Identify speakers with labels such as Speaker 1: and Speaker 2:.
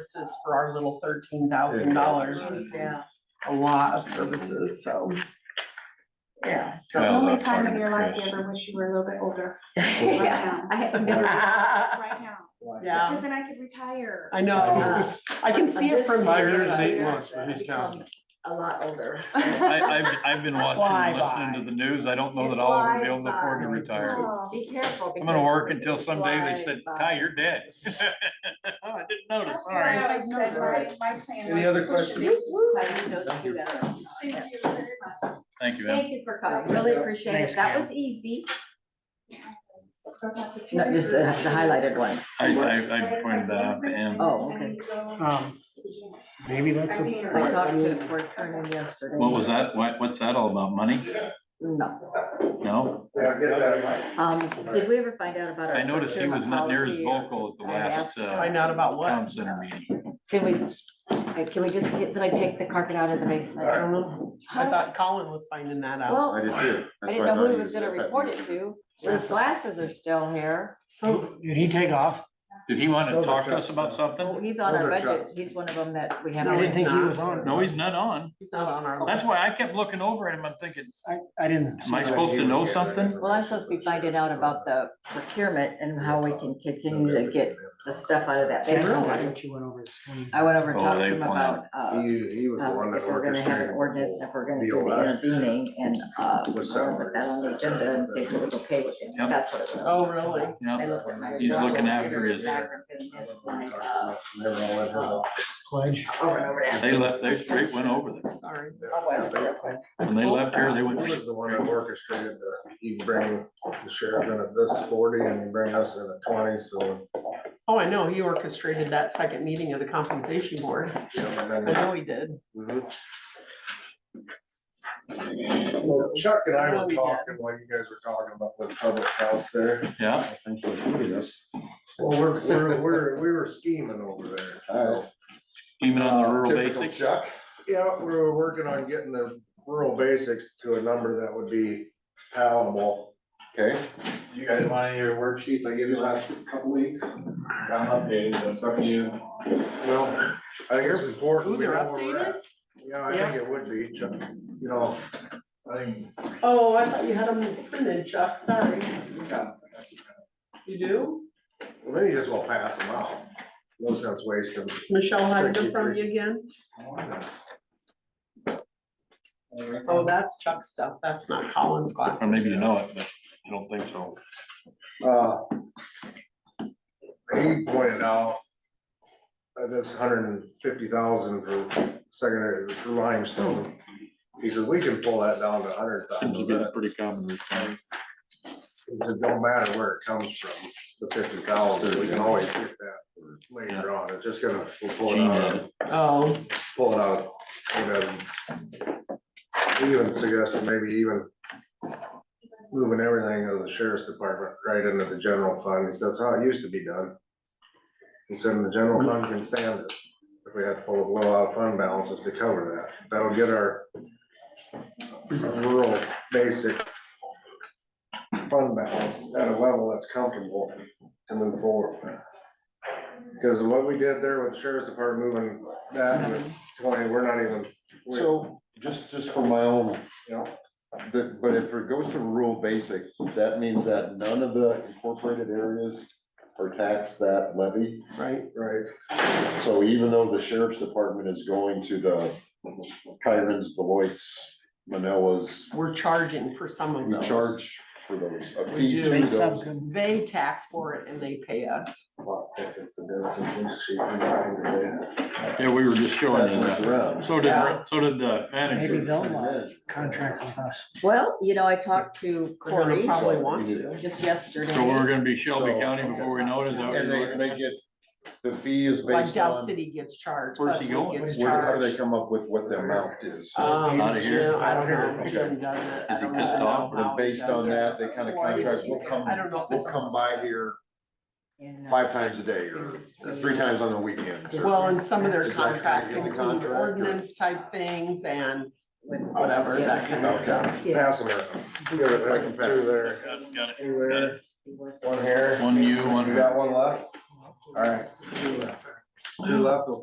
Speaker 1: services for our little thirteen thousand dollars,
Speaker 2: Yeah,
Speaker 1: a lot of services, so.
Speaker 2: yeah.
Speaker 3: Yeah,
Speaker 4: The only
Speaker 3: that's
Speaker 4: time
Speaker 3: fine,
Speaker 4: in your life you
Speaker 3: Chris.
Speaker 4: ever wish you were a little bit older,
Speaker 2: Yeah, I have no.
Speaker 1: Yeah,
Speaker 4: right now,
Speaker 1: I
Speaker 4: because then I could retire.
Speaker 1: know, I can see it from
Speaker 5: Five
Speaker 1: here,
Speaker 5: years and eight
Speaker 1: but-
Speaker 5: months for his county.
Speaker 2: A lot older.
Speaker 3: I, I've, I've been watching, and listening to the news, I don't know that I'll ever be able to afford to retire.
Speaker 4: Oh,
Speaker 2: Be careful.
Speaker 3: I'm gonna work
Speaker 2: because
Speaker 3: until someday they said,
Speaker 2: flies by.
Speaker 3: Ty, you're dead. Oh, I didn't notice,
Speaker 4: That's
Speaker 3: all
Speaker 4: what I
Speaker 3: right.
Speaker 4: always said, my, my plan was.
Speaker 5: Any other
Speaker 4: to push it
Speaker 5: questions?
Speaker 4: in.
Speaker 2: Those two that are-
Speaker 4: Thank you very much.
Speaker 3: Thank you, Em.
Speaker 2: Thank you for coming, really appreciate
Speaker 3: Thanks,
Speaker 2: it, that
Speaker 3: Cam.
Speaker 2: was easy.
Speaker 4: Don't have to
Speaker 6: No,
Speaker 4: tear
Speaker 6: just
Speaker 4: it.
Speaker 6: uh, the highlighted one.
Speaker 3: I, I, I pointed that out to Em.
Speaker 6: Oh,
Speaker 4: And
Speaker 6: okay.
Speaker 4: you go
Speaker 5: Um,
Speaker 4: to the gym.
Speaker 5: Maybe that's
Speaker 4: I mean,
Speaker 6: I talked to the court attorney yesterday.
Speaker 3: What was that? What, what's that all about? Money?
Speaker 6: No,
Speaker 3: No?
Speaker 6: um, did we ever find out about our?
Speaker 3: I noticed he was not near as
Speaker 6: procurement policy or-
Speaker 3: vocal at the
Speaker 6: I
Speaker 3: last,
Speaker 6: asked-
Speaker 3: uh,
Speaker 1: Find out about
Speaker 3: town
Speaker 1: what,
Speaker 3: center meeting.
Speaker 6: Can we, uh, can we just get, somebody take the carpet out of the basement?
Speaker 5: All
Speaker 1: I thought Colin was finding that out.
Speaker 6: Well, I
Speaker 5: too.
Speaker 6: didn't know who he was gonna report it to, so his glasses are still here.
Speaker 5: Did he take off?
Speaker 3: Did he want to
Speaker 5: Those are
Speaker 3: talk to us
Speaker 5: trucks,
Speaker 3: about
Speaker 6: Oh,
Speaker 3: something?
Speaker 6: He's on
Speaker 5: Those
Speaker 6: our
Speaker 5: are
Speaker 6: budget,
Speaker 5: trucks.
Speaker 6: he's one of them that we
Speaker 5: I didn't
Speaker 6: haven't.
Speaker 5: think he was on.
Speaker 3: No, he's not on.
Speaker 1: He's not on our
Speaker 3: That's
Speaker 1: list.
Speaker 3: why I kept looking over at him. I'm thinking,
Speaker 5: I, I didn't.
Speaker 3: am I supposed to know something?
Speaker 6: Well, I'm supposed to be finding out about the procurement and how we can continue to get the stuff out of that
Speaker 5: See, I
Speaker 6: basement.
Speaker 5: thought you went over this one.
Speaker 6: I went over and
Speaker 3: Oh,
Speaker 6: talked to
Speaker 3: they
Speaker 6: him
Speaker 3: plan.
Speaker 6: about, uh,
Speaker 7: He, he was the
Speaker 6: um,
Speaker 7: one that
Speaker 6: if we're gonna have an
Speaker 7: orchestrated.
Speaker 6: ordinance, if we're gonna do
Speaker 7: deal
Speaker 6: the
Speaker 7: last year.
Speaker 6: intervening and, uh, I'm
Speaker 7: With
Speaker 6: gonna put that on the
Speaker 7: salaries.
Speaker 6: agenda and see if it was okay with him,
Speaker 3: Yep.
Speaker 6: that's what it was.
Speaker 1: Oh, really?
Speaker 6: I
Speaker 3: No,
Speaker 6: looked at my
Speaker 3: He's
Speaker 6: watch and
Speaker 3: looking after his-
Speaker 6: back and this, like, uh,
Speaker 7: Never gonna let her off.
Speaker 5: Pledge.
Speaker 6: Over and over and asked
Speaker 3: they
Speaker 6: him.
Speaker 3: left, they straight went over there.
Speaker 1: Sorry.
Speaker 6: I'll ask him real quick.
Speaker 3: When they left here, they
Speaker 7: He
Speaker 3: went,
Speaker 7: was the one that orchestrated the, you bring the sheriff in at this forty and you bring us in at twenty, so.
Speaker 1: Oh, I know, he orchestrated that second meeting of the compensation board.
Speaker 7: you know,
Speaker 1: I
Speaker 7: and then-
Speaker 1: know he did.
Speaker 7: Mhm. Well, Chuck and I
Speaker 1: Oh,
Speaker 7: were
Speaker 1: yeah.
Speaker 7: talking while you guys were talking about the public health there.
Speaker 3: yeah,
Speaker 7: Well, we're, we're, we're, we were scheming over there.
Speaker 8: Alright.
Speaker 3: even on the rural
Speaker 8: Typical
Speaker 3: basics.
Speaker 8: Chuck,
Speaker 7: Yeah, we were working on getting the rural basics to a number that would be palatable.
Speaker 8: okay,
Speaker 9: You guys want any of your worksheets I gave you last couple weeks? I'm updated, but it's up to you.
Speaker 7: Well, I think it's important.
Speaker 1: Ooh,
Speaker 7: we
Speaker 1: they're
Speaker 7: know where we're at. Yeah, I think it would be, Chuck, you know,
Speaker 9: I think,
Speaker 1: Oh, I thought you had him printed, Chuck, sorry.
Speaker 9: yeah.
Speaker 1: You do?
Speaker 7: well, then you just will pass them out. No sense wasting.
Speaker 1: Does Michelle hide them from you again? Oh, that's Chuck's stuff, that's not Colin's
Speaker 3: Or
Speaker 1: glasses.
Speaker 3: maybe you know it, but I don't think so.
Speaker 7: Uh, He pointed out that this hundred and fifty thousand for secondary for limestone. He said, we can pull that down to a hundred
Speaker 3: Seems
Speaker 7: thousand.
Speaker 3: to be a pretty common response.
Speaker 7: He said, don't matter where it comes from, the fifty thousand, we can always get that later on. It's just gonna, we'll pull it out. of-
Speaker 1: Oh,
Speaker 7: pull it out, whatever. We Even suggested maybe even moving everything to the sheriff's department right into the general fund, he says, how it used to be done. He said, "And the general fund can stand it, if we had to pull a little out of fund balances to cover that, that'll get our rural basic fund balance at a level that's comfortable to move forward. Because what we did there with the sheriff's department moving that with twenty, we're not even, we-
Speaker 8: so just, just for my own,
Speaker 7: you know,
Speaker 8: but, but if it goes to rural basic, that means that none of the incorporated areas are taxed that levy.
Speaker 1: right.
Speaker 7: right?
Speaker 8: So even though the sheriff's department is going to the Kyrens, Beloit's, Manila's,
Speaker 1: We're charging for some of
Speaker 8: we
Speaker 1: them.
Speaker 8: charge for those, a
Speaker 1: We
Speaker 8: fee
Speaker 1: do.
Speaker 8: to
Speaker 5: They
Speaker 8: those.
Speaker 5: subbed him.
Speaker 1: They tax for it and they pay us.
Speaker 7: Well, if it's the Dennis and Dennis chief, I'm not gonna do that.
Speaker 3: Yeah, we were just showing
Speaker 8: Pass
Speaker 3: you
Speaker 8: those
Speaker 3: that.
Speaker 8: around.
Speaker 3: So did, so did the manager.
Speaker 5: Maybe they'll uh,
Speaker 8: City
Speaker 5: contract with us.
Speaker 6: Well, you know, I talked to
Speaker 1: They're gonna
Speaker 6: Corey
Speaker 1: Probably
Speaker 8: So,
Speaker 1: want
Speaker 8: you
Speaker 1: to.
Speaker 6: just yesterday.
Speaker 3: So we're gonna be Shelby
Speaker 8: So-
Speaker 3: County before we know it, is that what
Speaker 8: And
Speaker 3: you're
Speaker 8: they,
Speaker 3: looking
Speaker 8: they
Speaker 3: at?
Speaker 8: get, the fee is
Speaker 1: Like
Speaker 8: based
Speaker 1: Dow
Speaker 8: on,
Speaker 1: City gets charged.
Speaker 3: Where's
Speaker 1: us
Speaker 3: he
Speaker 1: we
Speaker 3: going?
Speaker 1: gets
Speaker 8: where, how do they
Speaker 1: charged.
Speaker 8: come up with what the amount is?
Speaker 1: Um,
Speaker 3: Outta here?
Speaker 1: you know, I don't know.
Speaker 8: Okay.
Speaker 1: Jim does it. I
Speaker 3: Is he
Speaker 1: don't
Speaker 3: pissed
Speaker 1: even know
Speaker 3: off?
Speaker 1: how
Speaker 8: And
Speaker 1: he
Speaker 8: based
Speaker 1: does
Speaker 8: on
Speaker 1: it.
Speaker 8: that, they kind of
Speaker 1: Or is
Speaker 8: contract,
Speaker 1: he-
Speaker 8: we'll come,
Speaker 1: I don't know if
Speaker 8: we'll
Speaker 1: it's-
Speaker 8: come by here
Speaker 6: And, uh,
Speaker 8: five times a day or three times on the weekend.
Speaker 1: Well, and some of their
Speaker 8: Does that kinda
Speaker 1: contracts
Speaker 8: get the
Speaker 1: include
Speaker 8: contract, or-
Speaker 1: ordinance type things and
Speaker 6: with-
Speaker 1: whatever, that kind of
Speaker 7: Okay.
Speaker 1: stuff.
Speaker 6: Yeah.
Speaker 7: Pass them out. Give it like two there,
Speaker 3: Got it, got it.
Speaker 7: two there,
Speaker 6: He was-
Speaker 7: one here.
Speaker 3: One you, one
Speaker 7: You
Speaker 3: her.
Speaker 7: got one left? All right. You're left with